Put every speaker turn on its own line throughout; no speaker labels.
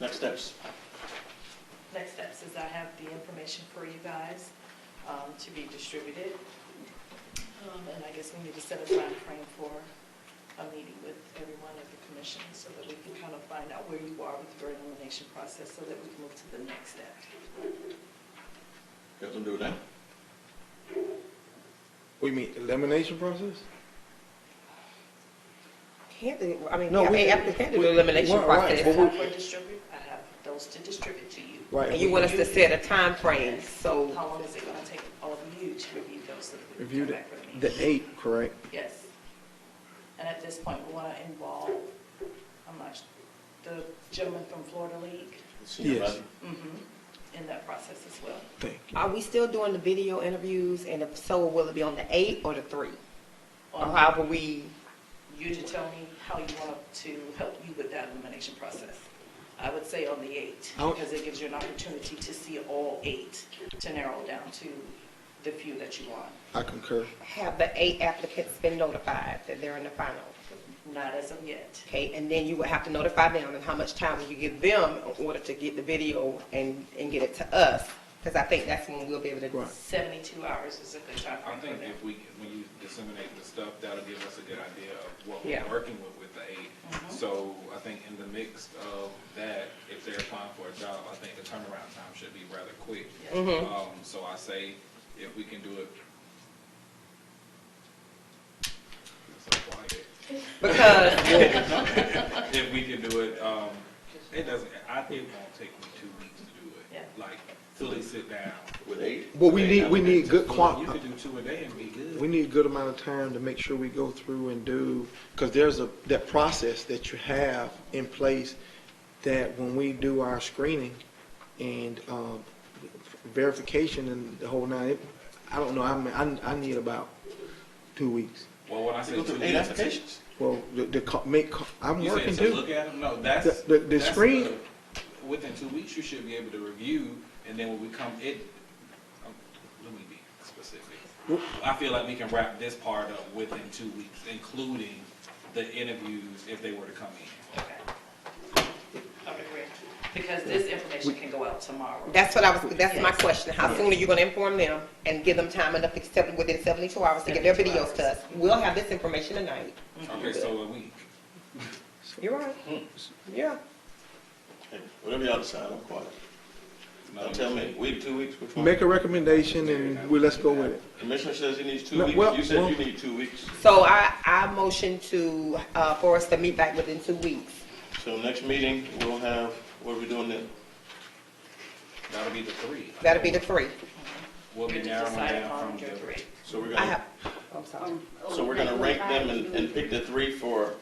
Next steps.
Next steps is I have the information for you guys um, to be distributed. Um, And I guess we need to set a time frame for a meeting with everyone at the commission so that we can kind of find out where you are with your elimination process so that we can move to the next step.
Got something to do with that?
We mean elimination process?
Can't, I mean,
No,
I
we-
mean, after handle
we-
the elimination
right, right,
process.
but we-
For distribute, I have those to distribute to you.
Right.
And you want us to set a time frame. so
How long is it going to take all of you to review those? so that we can
Review
come
the,
back with me?
the eight, correct?
Yes. And at this point, we want to involve, I'm not, su- the gentleman from Florida League
Senior
Yes.
advisor.
mhm, in that process as well.
Thank you.
are we still doing the video interviews? And if so, will it be on the eight or the three? Or
Um,
however we,
Um, You to tell me how you want to help you with that elimination process. I would say on the eight,
I would-
because it gives you an opportunity to see all eight, to narrow down to the few that you want.
I concur.
have the eight applicants been notified that they're in the final?
Not as of yet.
Okay, and then you would have to notify them and how much time will you give them in order to get the video and, and get it to us? Because I think that's when we'll be able to
Right.
72 hours is a good time
I
frame
think
for that.
if we, when you disseminate the stuff, that'll give us a good idea of what
Yeah.
we're working with with the aid.
Mhm.
So I think in the mix of that, if they're applying for a job, I think the turnaround time should be rather quick.
Yes.
Mhm.
Um, so I say if we can do it. It's so quiet.
Because
If we can do it, um, it doesn't, I, it won't take me two weeks to do it.
Yeah.
Like fully sit down.
With eight?
But we
Eight
need, we need
applicants.
good
You
quant,
could do two a day and be good.
we need a good amount of time to make sure we go through and do, because there's a, that process that you have in place that when we do our screening and, um, verification and the whole nine, it- I don't know, I mean, I, I need about two weeks.
Well, when I say
Go
two
through
weeks.
eight applications.
Well, the, the, co- make, co- I'm
You
working
said
too.
to look at them? No, that's.
The- the- the
that's
screen-
the- Within two weeks, you should be able to review, and then when we come, it, um, let me be specific.
Wh-
I feel like we can wrap this part up within two weeks, including the interviews if they were to come in.
Okay. Okay, great. Because this information can go out tomorrow.
That's what I was, that's my
Yes.
question. How soon are you gonna inform them and give them time enough, except within seventy-two hours to get their
72
videos to us? We'll have this information tonight.
Mm-hmm.
Okay, so a week.
You're right. Yeah.
Hey, Whatever y'all decide, I'm quiet.
No,
Don't tell me, week, two weeks, which one?
Make a recommendation and we, let's go with it.
Commissioner says he needs two
No,
weeks.
well,
You said
well-
you need two weeks.
So I, I motion to, uh, for us to meet back within two weeks.
So next meeting, we'll have, what are we doing then?
That'll be the three.
That'll be the three.
We'll
You
be
just
narrowing
decide
down
upon
from
your
the.
three.
So we're
I have,
gonna,
I'm sorry.
so we're gonna rank them and, and pick the three for,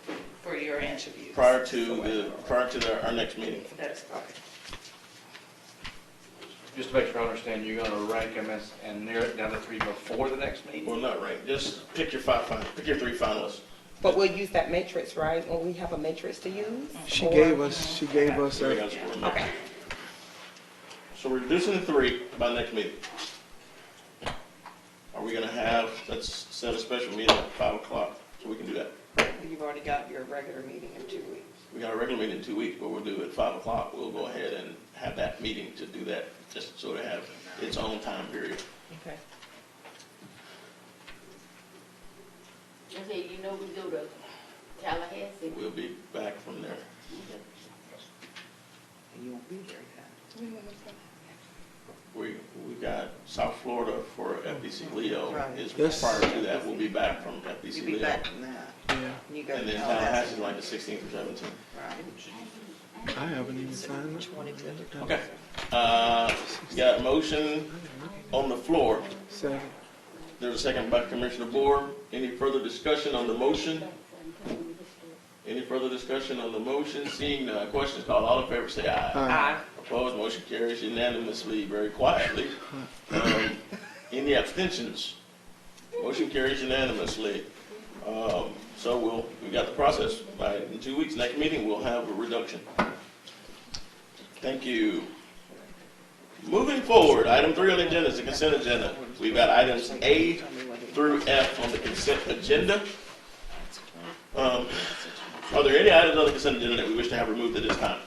For your interviews.
prior to the, prior to the- our next meeting.
That's,
Just to make sure I understand, you're gonna rank them as, and narrow it down to three before the next meeting?
Well, not rank, just pick your five, fin- pick your three finalists.
But we'll use that matrix, right? When we have a matrix to use?
She
or-
gave us, she gave us
So we
a,
gotta score them.
Okay.
So we're reducing to three by next meeting. Are we gonna have, let's set a special meeting at five o'clock, so we can do that.
You've already got your regular meeting in two weeks.
We got a regular meeting in two weeks, but we'll do it at five o'clock. We'll go ahead and have that meeting to do that, just so it have its own time period.
Okay.
Okay, you know we go to Tallahassee.
We'll be back from there.
And you won't be here then.
We, we got South Florida for FBC Leo is
Yes.
prior to that. We'll be back from FBC
You'll be
Leo.
back from that.
yeah,
You go
And
to
then
Tallahassee,
Tallahassee's like the sixteenth or seventeenth.
right?
I haven't even signed it.
Okay. Uh, got a motion on the floor.
Second.
There's a second by Commissioner Bohr. Any further discussion on the motion? Any further discussion on the motion? Seeing none, questions called, all in favor say aye.
Aye.
Aye.
Opposed, motion carries unanimously, very quietly. Um, Any abstentions? Motion carries unanimously. Um, So we'll, we got the process. By, in two weeks, next meeting, we'll have a reduction. Thank you. Moving forward, item three on the agenda is the consent agenda. We've got items A through F on the consent agenda. Um, Are there any items on the consent agenda that we wish to have removed at this time?